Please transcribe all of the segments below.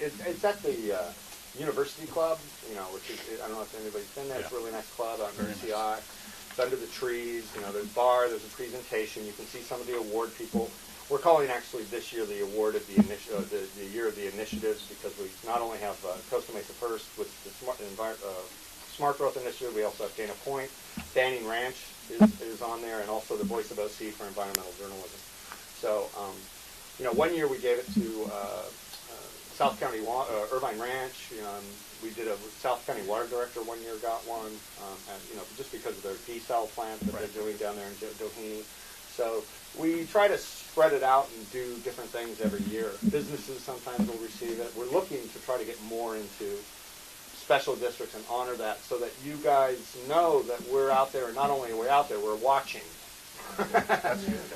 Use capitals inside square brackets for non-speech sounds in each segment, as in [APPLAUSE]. It, it's at the uh, University Club, you know, which is, I don't know if anybody's been there. It's a Yeah. really nice club out in Very nice. UCI. It's under the trees, you know, there's a bar, there's a presentation. You can see some of the award people. We're calling actually this year the award of the initiative, uh, the, the year of the initiatives, because we not only have uh, Costa Mesa First with the smart, envir- uh, smart growth initiative, we also have Dana Point, Banning Ranch is, is on there, and also the Voice of OC for environmental journalism. So, um, you know, one year we gave it to uh, uh, South County Wa- uh, Irvine Ranch. You know, and we did a South County Water Director one year got one, um, and, you know, just because of their desal plant that Right. they're doing down there in Do- Doheny. So we try to spread it out and do different things every year. Businesses sometimes will receive it. We're looking to try to get more into special districts and honor that so that you guys know that we're out there and not only are we out there, we're watching. [LAUGHS]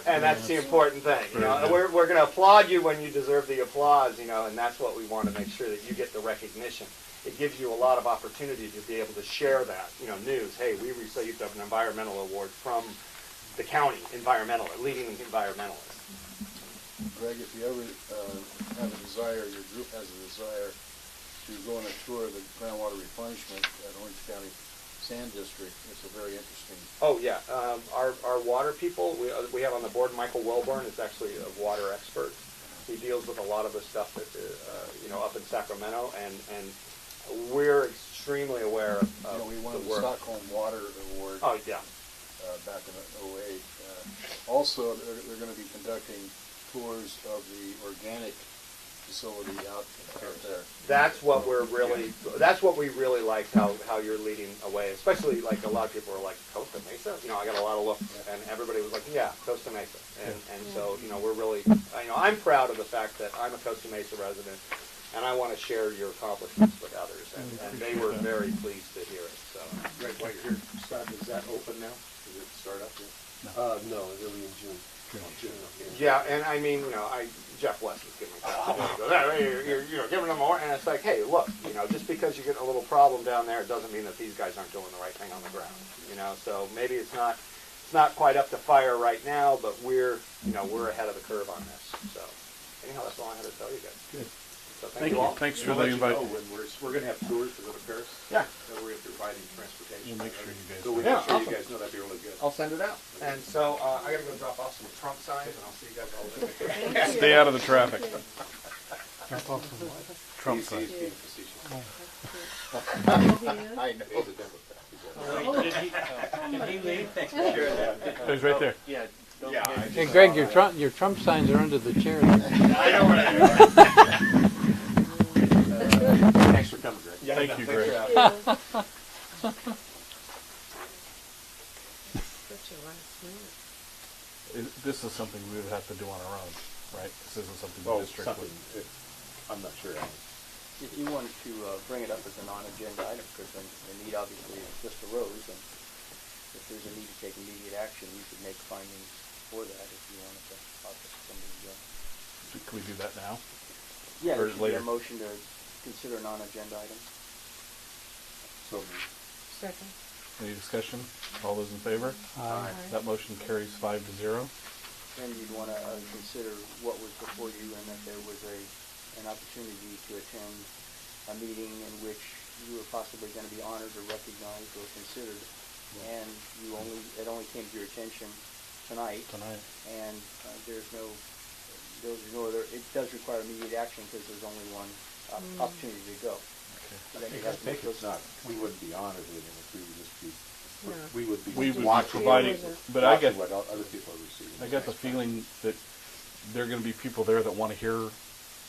and that's the important thing. You know, Very good. we're, we're going to applaud you when you deserve the applause, you know, and that's what we want to make sure that you get the recognition. It gives you a lot of opportunity to be able to share that, you know, news. Hey, we received an environmental award from the county environmental, leading environmentalist. Greg, if you ever uh, have a desire, your group has a desire to go on a tour of the groundwater replenishment at Orange County Sand District, it's a very interesting, Oh yeah, um, our, our water people we, uh, we have on the board. Michael Welborn is actually a water expert. He deals with a lot of the stuff that uh, you know up in Sacramento, and and we're extremely aware of, of you know, Uh, we won the the work. Stockholm Water Award uh, Oh yeah, back in '08. Also, they're, they're going to be conducting tours of the organic facility out out there. that's what we're really that's what we really liked how how you're leading away, especially like a lot of people are like Costa Mesa. You know, I got a lot of looks, and everybody was like, yeah, Costa Mesa, and and so you know we're really you know I'm proud of the fact that I'm a Costa Mesa resident, and I want to share your accomplishments with others, and, and they were very pleased to hear it. So Greg, while you're here, Scott, is that open now? Does it start up yet? Uh, no, it'll be in June. June, okay. yeah, and I mean you know I Jeff West was giving me that. You're, you're, you know giving them more, and it's like hey look you know just because you get a little problem down there it doesn't mean that these guys aren't doing the right thing on the ground you know so maybe it's not it's not quite up to fire right now but we're you know we're ahead of the curve on this so anyhow that's all I had to tell you guys. Good. So thank, Thank you you. all. Thanks for We'll the let you invite. know When we're, we're gonna have tours to go to Paris. Yeah. So we're gonna be providing transportation. We'll make sure you guys So we know. make sure Yeah, you guys know that'd be really good. I'll send it out. And so uh, I gotta go drop off some Trump signs, and I'll see you guys all later. Stay out of the traffic. Trump He's- sign. He's being facetious. I know. He's a Democrat. He's a- He's right there. Yeah. don't Yeah, forget- I Hey just- Greg, your Trump, your Trump signs are under the chair. [LAUGHS] there. I know where they are. Uh, Thanks for coming, Greg. Thank you, Greg. Is- This is something we would have to do on our own, right? This isn't something the Oh, district something, would. if- I'm not sure. If you wanted to uh, bring it up as a non-agenda item, because the the need obviously just arose, and if there's a need to take immediate action, you could make findings for that if you wanted to offer somebody to go. Can we do that now? Yeah, Or there should be later. a motion to consider non-agenda item. So, Second. Any discussion? All those in favor? Uh, That motion carries five to zero. Then you'd want to consider what was before you and that there was a, an opportunity to attend a meeting in which you were possibly going to be honored or recognized or considered. And you only, it only came to your attention tonight. Tonight. And uh, there's no, there's no other, it does require immediate action because there's only one op- Mm. opportunity to go. Okay. So then I you have to make think it's those- not, we wouldn't be honored with it, we would just be, No. we would be. We would be watching- providing, but I watching get, What o- other people are receiving. I get the feeling that there are gonna be people there that wanna hear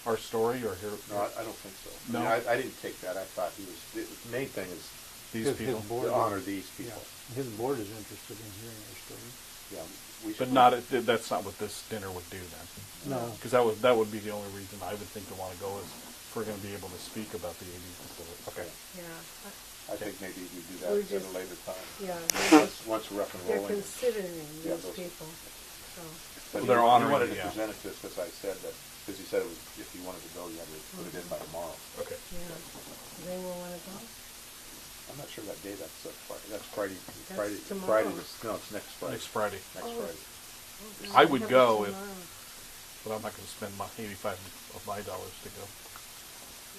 our story or hear No, I, I don't think so. I mean, No? I, I didn't take that, I thought he was, the the main thing is these [LAUGHS] His- his people. board to is- honor these yeah, people. His board is interested in hearing your story. Yeah, we But should. not, at- that's not what this dinner would do then. No, Because that would, that would be the only reason I would think to want to go is if we're going to be able to speak about the 80s facility. Okay, Yeah, I think maybe we do We're that at just- a later time. yeah, they're- Once, once we're up and they're rolling. considering Yeah, these those- people, so, But Well, they're he- he honoring wanted it, to yeah. present it to us, because I said that, because he said it was, if he wanted to go, you had to put it in by tomorrow. Okay. yeah, they will wanna go. I'm not sure that day, that's, uh, Fri- that's Friday, That's Friday, tomorrow. Friday, is- no, it's next Friday, Next Friday. next Oh. Friday. I Okay, would have it go if- tomorrow. But I'm not going to spend my 85 of my dollars to go.